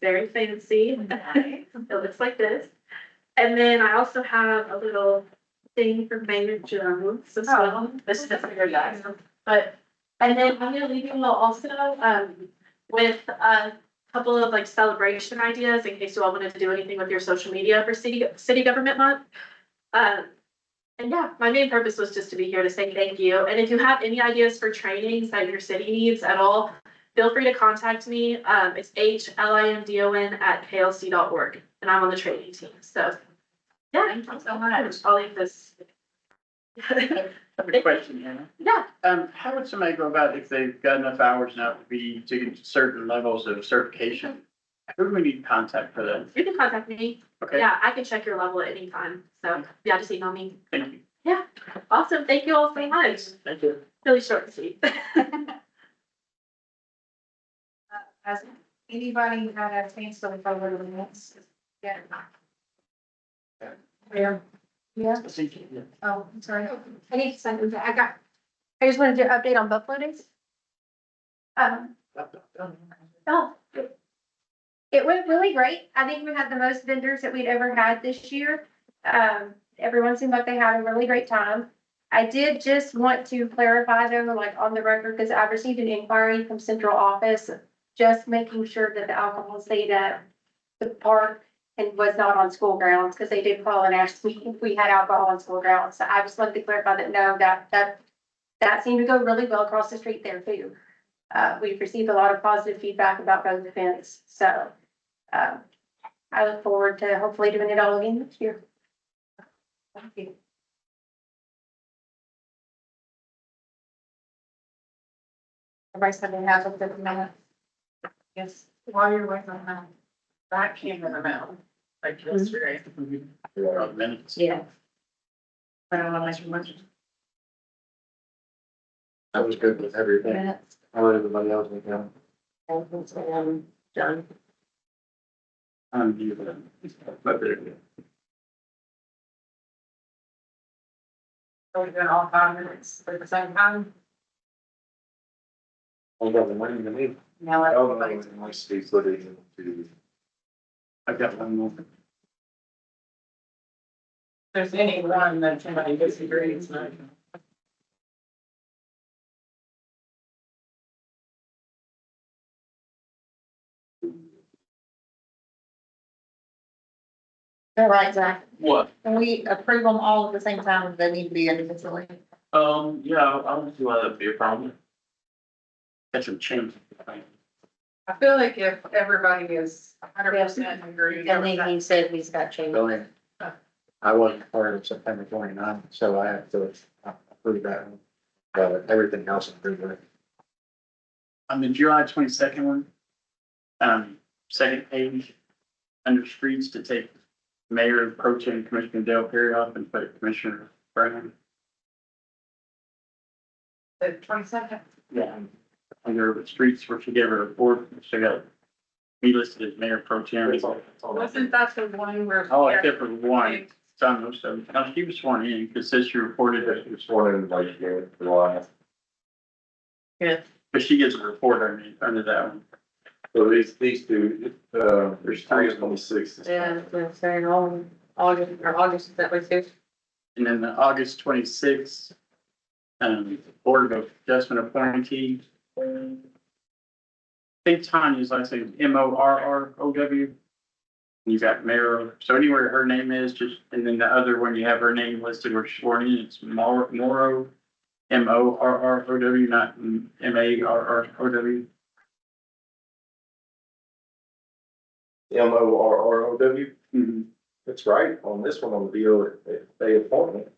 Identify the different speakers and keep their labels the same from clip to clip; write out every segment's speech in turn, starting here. Speaker 1: very fancy. It looks like this. And then I also have a little thing from Maynard Jones as well.
Speaker 2: This is for your guys.
Speaker 1: But, and then I'm gonna leave you all also, um, with a couple of like celebration ideas in case you all wanted to do anything with your social media for city, city government month. Um, and yeah, my main purpose was just to be here to say thank you. And if you have any ideas for trainings that your city needs at all, feel free to contact me. Um, it's H L I N D O N at klc.org, and I'm on the training team, so. Yeah,
Speaker 2: Thank you so much.
Speaker 1: I'll leave this.
Speaker 3: I have a question, Anna.
Speaker 1: Yeah,
Speaker 3: Um, how would somebody go about if they've got enough hours now to be to certain levels of certification? Who do we need to contact for that?
Speaker 1: you can contact me.
Speaker 3: Okay,
Speaker 1: Yeah, I can check your level at any time. So, yeah, just email me.
Speaker 3: thank you.
Speaker 1: Awesome. Thank you all so much.
Speaker 3: Thank you.
Speaker 1: Really short and sweet.
Speaker 2: Has anybody had a chance to look over the minutes? Yeah. Yeah. Yeah, oh, I'm sorry. I need to send them back. I got, I just wanted to update on Buffalo Days. Um, oh. It went really great. I think we had the most vendors that we'd ever had this year. Um, everyone seemed like they had a really great time. I did just want to clarify though, like on the record, because I've received an inquiry from central office, just making sure that the alcohol stayed at the park and was not on school grounds, because they did call and ask me if we had alcohol on school grounds. So I just wanted to clarify that, no, that, that, that seemed to go really well across the street there too. Uh, we've received a lot of positive feedback about both events, so, uh, I look forward to hopefully doing it all again next year. Thank you. Everybody's having half of the minute. Yes. While you're waiting on that, that came in the mail, like yesterday.
Speaker 3: Minutes.
Speaker 2: Yeah. I don't know, much much.
Speaker 4: I was good with everything.
Speaker 2: Minutes.
Speaker 4: I let everybody else make them.
Speaker 2: Um, done.
Speaker 3: Um, you, but there you
Speaker 2: Are we doing all five minutes at the same time?
Speaker 4: I got the money to leave.
Speaker 2: No.
Speaker 4: I don't know, it must be footing to.
Speaker 3: I've got one more.
Speaker 5: there's any one that somebody disagrees with.
Speaker 2: All right, Zach,
Speaker 3: What?
Speaker 2: can we approve them all at the same time, they need to be individually?
Speaker 5: Um, yeah, I don't see
Speaker 3: uh,
Speaker 5: why that'd be a problem.
Speaker 3: Got some change.
Speaker 5: I feel like if everybody is hundred percent agree.
Speaker 2: And then he said he's got changes.
Speaker 4: Billing. I wasn't part of September twenty nine, so I have to approve that one. But everything else is pretty good.
Speaker 3: On the July twenty-second one, um, second page, under streets to take Mayor Pro Tem Commissioner Dale Perry off and put Commissioner Brown.
Speaker 5: The twenty-second.
Speaker 3: Yeah. Under the streets where she gave her report, she got, he listed as mayor pro tem.
Speaker 5: Wasn't that the one where?
Speaker 3: Oh, except for one, John Russo, now she was sworn in, because since she reported it,
Speaker 4: It's one in like here, July.
Speaker 3: but she gives a report under, under that one.
Speaker 4: So these, these two, uh, there's
Speaker 3: three of them.
Speaker 4: six.
Speaker 6: Yeah, I'm saying, all, August, or August, is that what it is?
Speaker 3: And then the August twenty-sixth, um, Board of Adjustment appointee. I think Tanya's last name, M O R R O W. You got Mayor, so anywhere her name is, just, and then the other one, you have her name listed or sworn in, it's Mor- Morrow. M O R R O W, not M A R R O W.
Speaker 4: M O R R O W.
Speaker 3: Mhm.
Speaker 4: That's right, on this one, on the deal, they appointment.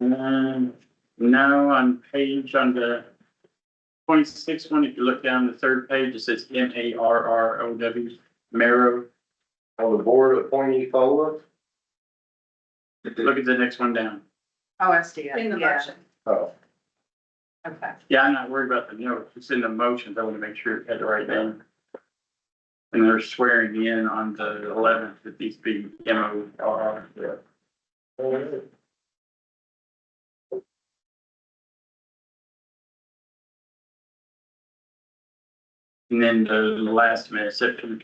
Speaker 3: Um, now on page on the twenty-sixth one, if you look down the third page, it says M A R R O W, Marrow.
Speaker 4: On the board appointee follow-up?
Speaker 3: Look at the next one down.
Speaker 2: Oh, I see
Speaker 5: In the motion.
Speaker 4: Oh,
Speaker 2: Okay.
Speaker 3: Yeah, I'm not worried about the notes. It's in the motions. I want to make sure it had the right name. And they're swearing in on the eleventh that these be M O R R.
Speaker 4: Oh.
Speaker 3: And then the last minute, September